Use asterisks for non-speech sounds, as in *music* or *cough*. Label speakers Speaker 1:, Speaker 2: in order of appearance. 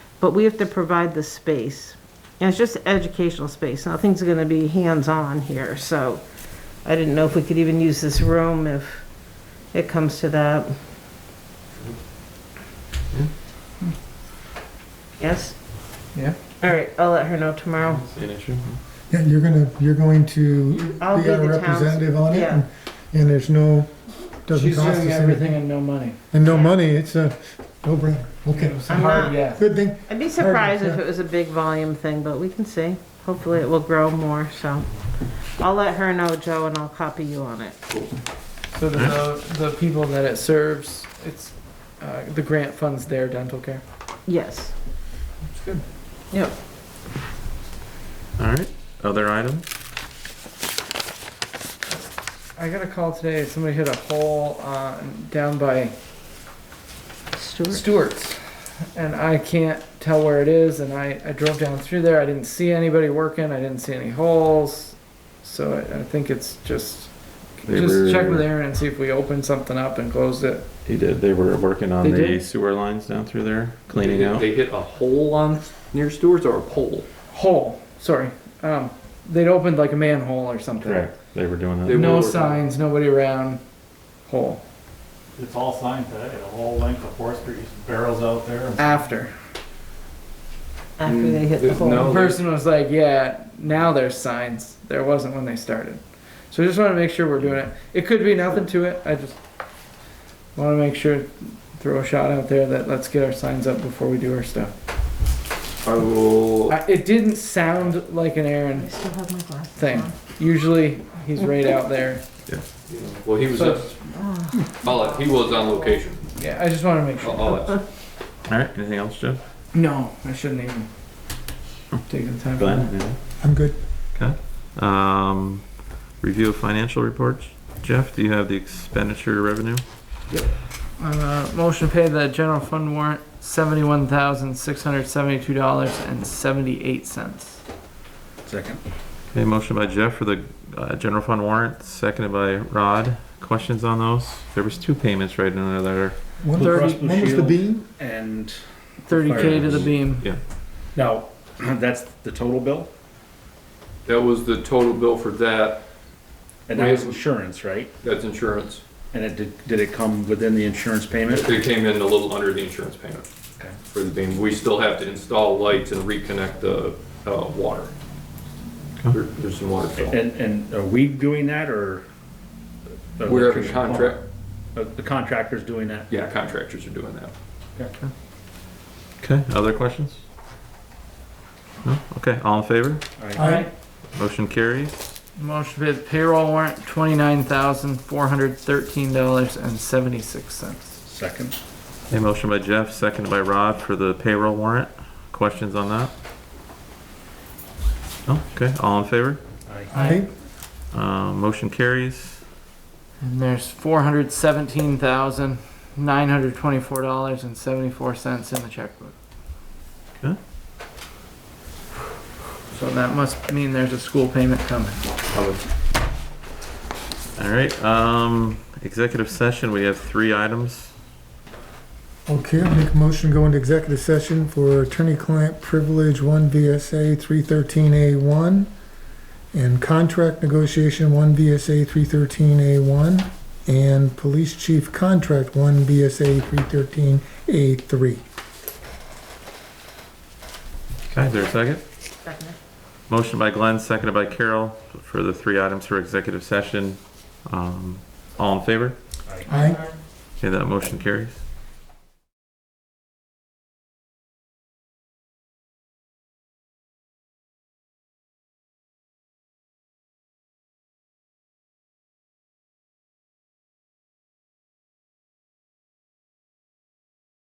Speaker 1: but we have to provide the space. And it's just educational space, nothing's gonna be hands-on here, so I didn't know if we could even use this room if it comes to that. Yes?
Speaker 2: Yeah.
Speaker 1: All right, I'll let her know tomorrow.
Speaker 3: An issue?
Speaker 2: Yeah, you're gonna, you're going to be
Speaker 1: I'll be
Speaker 2: our
Speaker 1: the town's-
Speaker 2: representative on it,
Speaker 1: yeah.
Speaker 2: and- and there's no, doesn't
Speaker 4: She's
Speaker 2: cost us
Speaker 4: doing everything
Speaker 2: anything.
Speaker 4: and no money.
Speaker 2: And no money, it's a no-brainer, okay.
Speaker 4: It's a
Speaker 1: I'm
Speaker 4: hard
Speaker 1: not-
Speaker 4: yes.
Speaker 2: Good thing,
Speaker 1: I'd be surprised if
Speaker 2: yeah.
Speaker 1: it was a big volume thing, but we can see. Hopefully it will grow more, so. I'll let her know, Joe, and I'll copy you on it.
Speaker 4: So the, the, the people that it serves, it's, uh, the grant funds their dental care.
Speaker 1: Yes.
Speaker 2: it's good.
Speaker 4: Yep.
Speaker 3: All right, other items?
Speaker 4: I got a call today, somebody hit a hole, uh, down by
Speaker 1: Stuart?
Speaker 4: Stewart's. And I can't tell where it is, and I, I drove down through there, I didn't see anybody working, I didn't see any holes. So I, I think it's just,
Speaker 3: They
Speaker 4: just check
Speaker 3: were-
Speaker 4: with Aaron and see if we opened something up and closed it.
Speaker 3: He did, they were working on
Speaker 4: They
Speaker 3: the
Speaker 4: did?
Speaker 3: sewer lines down through there,
Speaker 5: They
Speaker 3: cleaning
Speaker 5: hit-
Speaker 3: out.
Speaker 5: They hit a hole on near Stewart's or a pole?
Speaker 4: Hole, sorry, um, they'd opened like a manhole or something.
Speaker 3: Correct, they were doing
Speaker 5: They
Speaker 3: that.
Speaker 4: No
Speaker 5: were-
Speaker 4: signs, nobody around, hole,
Speaker 6: It's all signed today, the whole length of Fourth Street, barrels out there.
Speaker 4: after.
Speaker 1: After they hit the
Speaker 5: There's no-
Speaker 1: hole.
Speaker 4: The
Speaker 5: they-
Speaker 4: person was like, yeah, now there's signs, there wasn't when they started. So I just wanna make sure we're doing it, it could be nothing to it, I just wanna make sure, throw a shot out there that let's get our signs up before we do our stuff.
Speaker 5: I will,
Speaker 4: I- It didn't sound like an
Speaker 1: I
Speaker 4: Aaron
Speaker 1: still have my glasses
Speaker 4: thing,
Speaker 1: on.
Speaker 4: usually he's right out there,
Speaker 5: well, he was,
Speaker 4: So-
Speaker 1: Ah,
Speaker 5: I'll let- he was on location.
Speaker 4: yeah, I just wanna make sure.
Speaker 5: *laughs* I'll- I'll let-
Speaker 3: All right, anything else, Jeff?
Speaker 4: No, I shouldn't even take the time. for that.
Speaker 3: Glenn, anything?
Speaker 2: I'm good.
Speaker 3: Um, review of financial reports. Jeff, do you have the expenditure revenue?
Speaker 4: Uh, motion to pay the general fund warrant seventy-one thousand six hundred seventy-two dollars and seventy-eight cents.
Speaker 3: Okay, motion by Jeff for the, uh, general fund warrant, seconded by Rod. Questions on those? There was two payments right in there.
Speaker 2: One
Speaker 4: Blue
Speaker 2: was,
Speaker 4: Cross
Speaker 6: Blue
Speaker 2: one was the
Speaker 6: Shield.
Speaker 2: bean?
Speaker 6: And
Speaker 4: Thirty K to the
Speaker 6: Firehouse.
Speaker 4: beam.
Speaker 6: now, *clears throat* that's the total bill?
Speaker 5: That was the total bill for that,
Speaker 6: And that was insurance, right?
Speaker 5: that's insurance.
Speaker 6: And it, did did it come within the insurance payment?
Speaker 5: It came in a little under the insurance payment
Speaker 6: Okay.
Speaker 5: for the beam. We still have to install lights and reconnect the, uh, water. There- There's some water. fill.
Speaker 6: And, and are we doing that or?
Speaker 5: We're having contract,
Speaker 6: Uh, The contractor's doing that?
Speaker 5: yeah, contractors are doing that.
Speaker 3: Okay, other questions? No? Okay, all in favor?
Speaker 6: All right.
Speaker 2: I,
Speaker 4: Alright,
Speaker 3: Motion carries.
Speaker 4: motion to pay the payroll warrant twenty-nine thousand four hundred thirteen dollars and seventy-six cents.
Speaker 6: Second.
Speaker 3: A motion by Jeff, seconded by Rod for the payroll warrant. Questions on that? No? Okay, all in favor?
Speaker 6: Aye.
Speaker 2: I,
Speaker 3: Uh, motion carries.
Speaker 4: And there's four hundred seventeen thousand nine hundred twenty-four dollars and seventy-four cents in the checkbook.
Speaker 3: Okay.
Speaker 4: So that must mean there's a school payment coming.
Speaker 3: All right, um, executive session, we have three items.
Speaker 2: okay, I'll make a motion, to go into executive session for attorney-client privilege, one VSA three thirteen A one, and contract negotiation, one VSA three thirteen A one, and police chief contract, one VSA three thirteen A three.
Speaker 3: Okay, is there a second?
Speaker 1: Second.
Speaker 3: Motion by Glenn, seconded by Carol for the three items for executive session. Um, all in favor?
Speaker 2: I,
Speaker 3: Okay, that motion carries.